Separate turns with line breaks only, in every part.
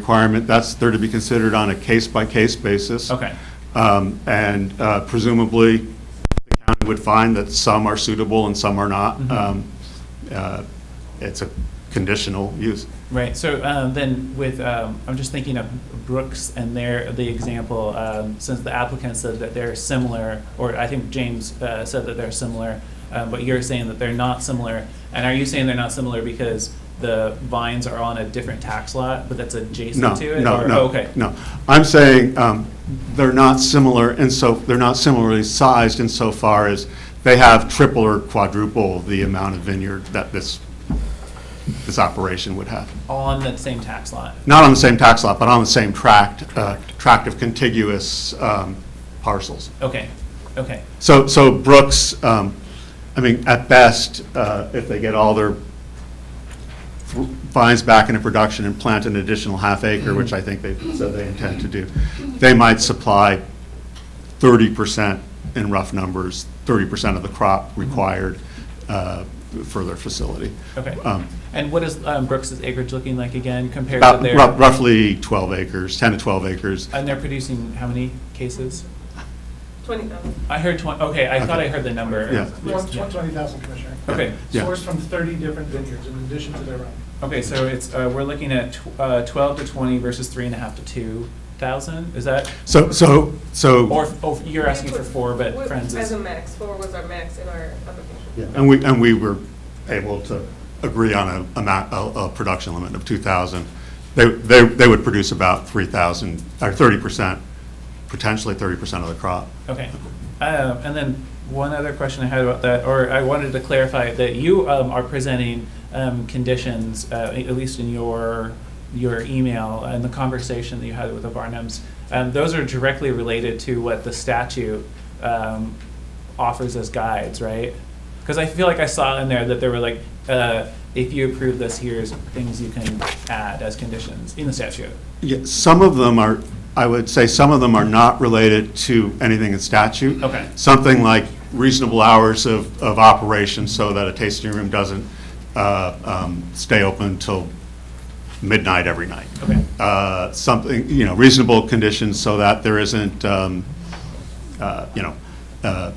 requirement, that's, there to be considered on a case-by-case basis.
Okay.
Um, And uh, presumably, the county would find that some are suitable and some are not.
Mm-hmm.
Um, uh, It's a conditional use.
Right, so uh, then with, um, I'm just thinking of Brooks and their, the example, um, since the applicant said that they're similar, or I think James uh, said that they're similar, um, but you're saying that they're not similar, and are you saying they're not similar because the vines are on a different tax lot, but that's
No,
adjacent to it?
no,
Or- oh,
no.
Okay,
No. I'm saying um, they're not similar, and so, they're not similarly sized insofar as they have triple or quadruple the amount of vineyard that this, this operation would have.
on the same tax lot?
not on the same tax lot, but on the same tract, uh, tract of contiguous um, parcels.
Okay, okay,
So, so Brooks, um, I mean, at best, uh, if they get all their vines back into production and plant an additional half acre, which I think they said they intend to do, they might supply 30% in rough numbers, 30% of the crop required uh, for their facility.
okay.
Um,
And what is um, Brooks's acreage looking like again compared to
About
their?
rough- roughly 12 acres, 10 to 12 acres.
And they're producing how many cases?
20,000.
I heard 20, okay, I thought I heard the number.
Yeah.
One- 120,000, Commissioner.
Okay,
Yeah.
Sourced from 30 different vineyards in addition to their own.
okay, so it's, uh, we're looking at tw- uh, 12 to 20 versus three and a half to 2,000? Is that,
So, so, so.
or, oh, you're asking for four, but
What-
Friends
As
is,
a max, four was our max in our
Yeah,
application.
And we, and we were able to agree on a, a ma- a, a production limit of two thousand. They, they, they would produce about three thousand, or thirty percent, potentially thirty percent of the crop.
okay. Um, And then one other question I had about that, or I wanted to clarify that you um, are presenting um, conditions, uh, a- at least in your, your email and the conversation that you had with the Barnums, um, those are directly related to what the statute um, offers as guides, right? Because I feel like I saw in there that there were like, uh, if you approve this, here's things you can add as conditions in the statute.
Yeah, some of them are, I would say some of them are not related to anything in statute.
Okay.
Something like reasonable hours of, of operation so that a tasting room doesn't, uh, um, stay open till midnight every night.
Okay.
Uh, something, you know, reasonable conditions so that there isn't, um, uh, you know, uh,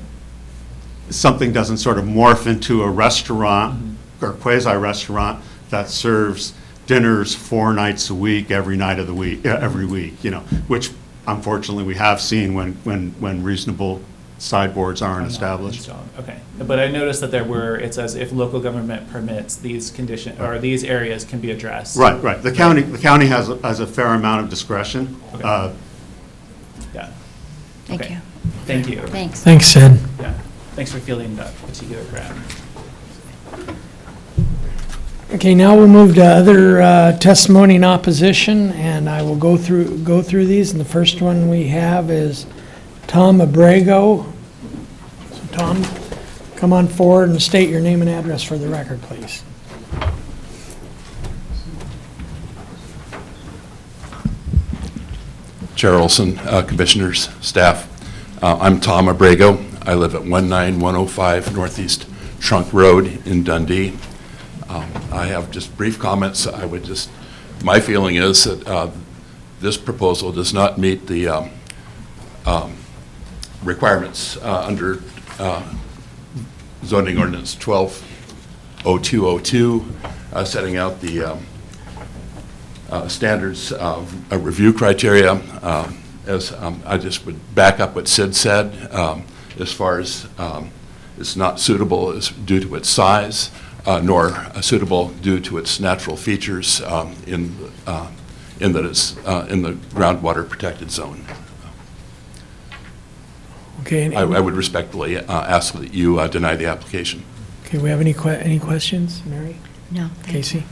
something doesn't sort of morph into a restaurant or quasi-restaurant that serves dinners four nights a week, every night of the week, uh, every week, you know, which unfortunately we have seen when, when, when reasonable sideboards aren't established.
Installed, Okay, but I noticed that there were, it says if local government permits, these condition, or these areas can be addressed.
Right, right. The county, the county has, a- has a fair amount of discretion.
Okay.
Uh,
Yeah,
Thank
Okay.
you.
thank you.
Thanks.
Thanks, Ed.
Yeah, thanks for fielding that particular round.
Okay, now we'll move to other uh, testimony in opposition, and I will go through, go through these. And the first one we have is Tom Abrego. So Tom, come on forward and state your name and address for the record, please.
Chair Olson, uh, Commissioners, staff. Uh, I'm Tom Abrego. I live at 19105 Northeast Trunk Road in Dundee. Um, I have just brief comments. I would just, my feeling is that uh, this proposal does not meet the um, um, requirements uh, under uh, zoning ordinance 120202, uh, setting out the um, uh, standards of uh, review criteria. um, As um, I just would back up what Sid said, um, as far as um, it's not suitable is due to its size, uh, nor suitable due to its natural features um, in, uh, in that it's uh, in the groundwater protected zone.
Okay,
I
and-
I would respectfully uh, ask that you uh, deny the application.
okay, we have any que, any questions, Mary?
No, thank you.
Casey?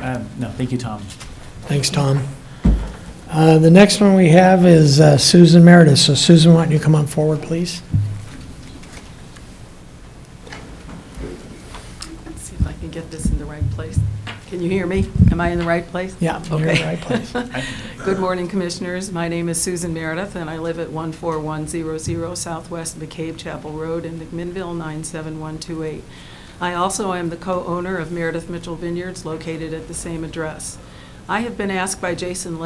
Um, No, thank you, Tom.
Thanks, Tom. Uh, The next one we have is uh, Susan Meredith. So Susan, why don't you come on forward, please?
Let's see if I can get this in the right place. Can you hear me? Am I in the right place?
Yeah, you're in the
Okay.
right place.
Good morning, Commissioners. My name is Susan Meredith, and I live at 14100 Southwest McCabe Chapel Road in McMinnville, 97128. I also am the co-owner of Meredith Mitchell Vineyards, located at the same address. I have been asked by Jason